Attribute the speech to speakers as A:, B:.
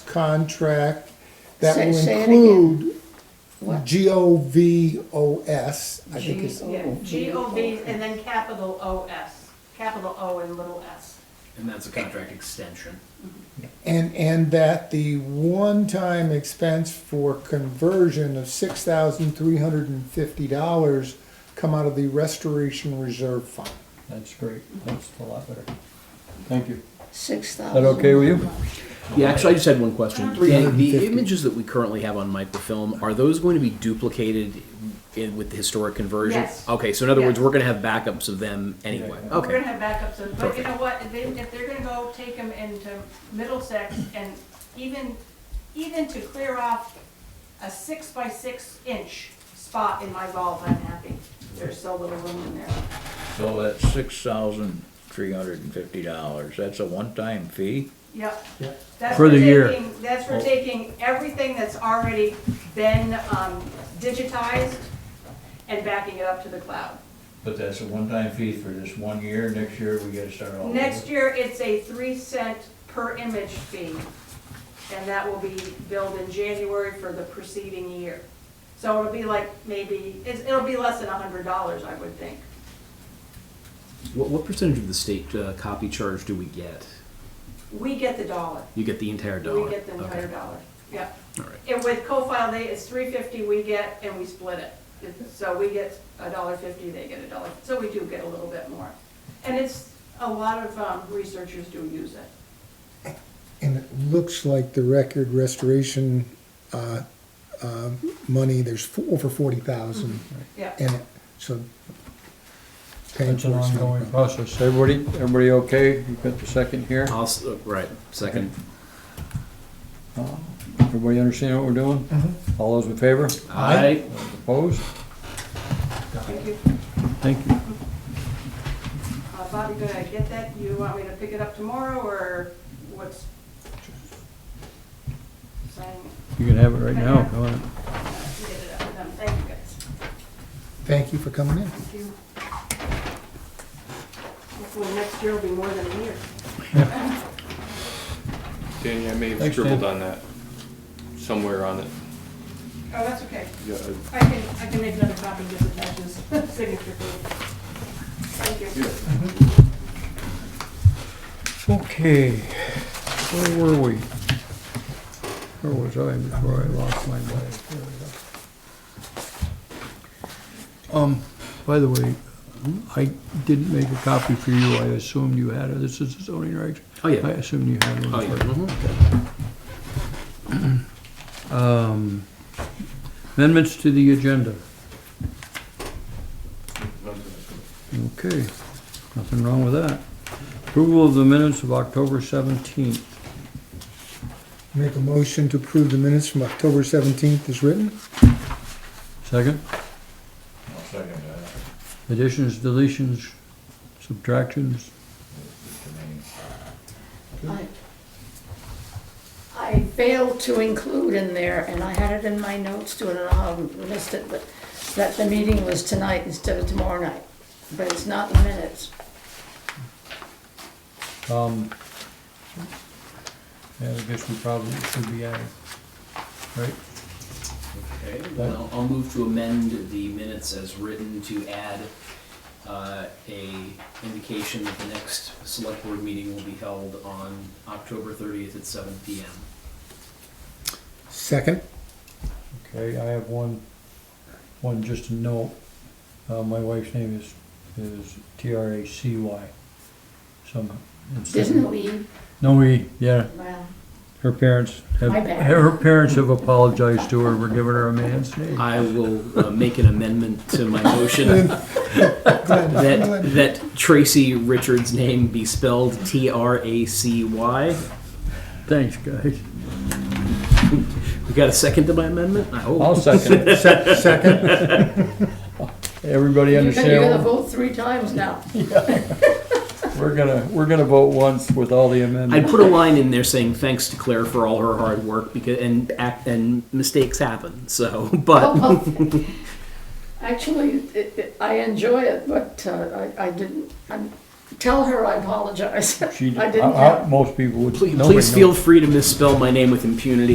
A: contract that will
B: Say- say it again.
A: include
C: Hmm.
B: What?
A: G O V O S, I think it's,
D: Oh,
E: Yeah, G O V and then capital O S, capital O and little s.
D: And that's a contract extension.
A: and, and that the one-time expense for conversion of six thousand three hundred and fifty dollars come out of the restoration reserve fund.
C: That's great, that's a lot better. Thank you.
B: Six
C: Is
B: thousand.
C: that okay with you?
D: Yeah, actually, I just had one question. The, the images that we currently have on microfilm, are those going to be duplicated in, with the historic conversion?
E: Yes.
D: Okay, so in other words,
E: Yes.
D: we're gonna have backups of them anyway,
C: Yeah, yeah.
E: We're gonna
D: okay.
E: have backups, of- but you
D: Perfect.
E: know what, if they, if they're gonna go take them into Middlesex and even, even to clear off a six by six inch spot in my vault, I'm happy. There's so little room in there.
F: So that's six thousand three hundred and fifty dollars, that's a one-time fee?
E: Yep.
A: Yeah.
E: That's
C: For
E: for
C: the year.
E: taking, that's for taking everything that's already been, um, digitized and backing it up to the cloud.
F: But that's a one-time fee for this one year, next year we gotta start all over?
E: Next year, it's a three cent per image fee, and that will be billed in January for the preceding year. So it'll be like maybe, it's, it'll be less than a hundred dollars, I would think.
D: What, what percentage of the state, uh, copy charge do we get?
E: We get the dollar.
D: You get the entire dollar?
E: We get the entire
D: Okay.
E: dollar, yep.
D: All right.
E: And with co-file, they, it's three fifty we get, and we split it. It's- So we get a dollar fifty, they get a dollar, so we do get a little bit more. And it's, a lot of, um, researchers do use it.
A: And it looks like the record restoration, uh, uh, money, there's fo- over forty thousand
E: Yeah.
A: in it, so. paying
C: That's an
A: for it's not a
C: ongoing
A: problem.
C: process. Everybody, everybody okay? You've got the second here?
D: I'll s- uh, right, second.
C: Uh, Everybody understand what we're doing? All those in favor?
D: Aye.
C: Opposed?
E: Thank you.
C: Thank you.
E: Uh, Bobby, did I get that? You want me to pick it up tomorrow, or what's? Sign,
C: You can have it right now. Go ahead.
E: uh, get it up, Um, thank you guys.
A: Thank you for coming in.
E: Thank you. Hopefully next year will be more than a year.
G: Danny, I may have
C: Thanks, Dan.
G: scribbled on that somewhere on it.
E: Oh, that's okay.
G: Yeah, I-
E: I can, I can make another copy just attach this signature for you. Thank you.
C: Okay, where were we? Where was I before I lost my mind? There we go. Um, by the way, I didn't make a copy for you, I assumed you had it, this is the zoning regs.
D: Oh, yeah.
C: I assumed you had
D: Oh,
C: one.
D: yeah. Mhm.
C: Um, amendments to the agenda. Okay, nothing wrong with that. Approval of the minutes of October seventeenth.
A: Make a motion to approve the minutes from October seventeenth as written.
C: Second?
F: I'll second that,
C: Additions, deletions, subtractions,
F: to me.
B: I- I failed to include in there, and I had it in my notes too, and I don't know how I missed it, but that the meeting was tonight instead of tomorrow night, but it's not in the minutes.
C: um. Yeah, I guess we probably should be adding, right?
D: Okay, then I'll, I'll move to amend the minutes as written to add, uh, a indication that the next select board meeting will be held on October thirtieth at seven P M.
A: Second,
C: Okay, I have one, one just a note, uh, my wife's name is, is T R A C Y, somehow. instead of-
B: Didn't we,
C: No, E, yeah,
B: well,
C: her parents have,
B: My bad.
C: her parents have apologized to her for giving her a man's name.
D: I will uh, make an amendment to my motion that, that Tracy Richards' name be spelled T R A C Y.
C: Thanks, guys.
D: We got a second to my amendment? I
C: I'll
D: hope.
C: second it.
A: Se- second,
C: Everybody
B: you're gonna
C: understand?
B: you're
C: what-
B: gonna vote three times now.
C: We're gonna, we're gonna vote once with all the
D: I'd
C: amendments.
D: put a line in there saying thanks to Claire for all her hard work because and act and mistakes happen. So, but
B: Oh, well, Actually, it, it, I enjoy it, but uh, I, I didn't, I'm, Tell her I apologize.
C: She,
B: I didn't
C: I- I-
B: have-
C: most people would.
D: Please,
C: nobody
D: please
C: knows.
D: feel free to misspell my name with impunity.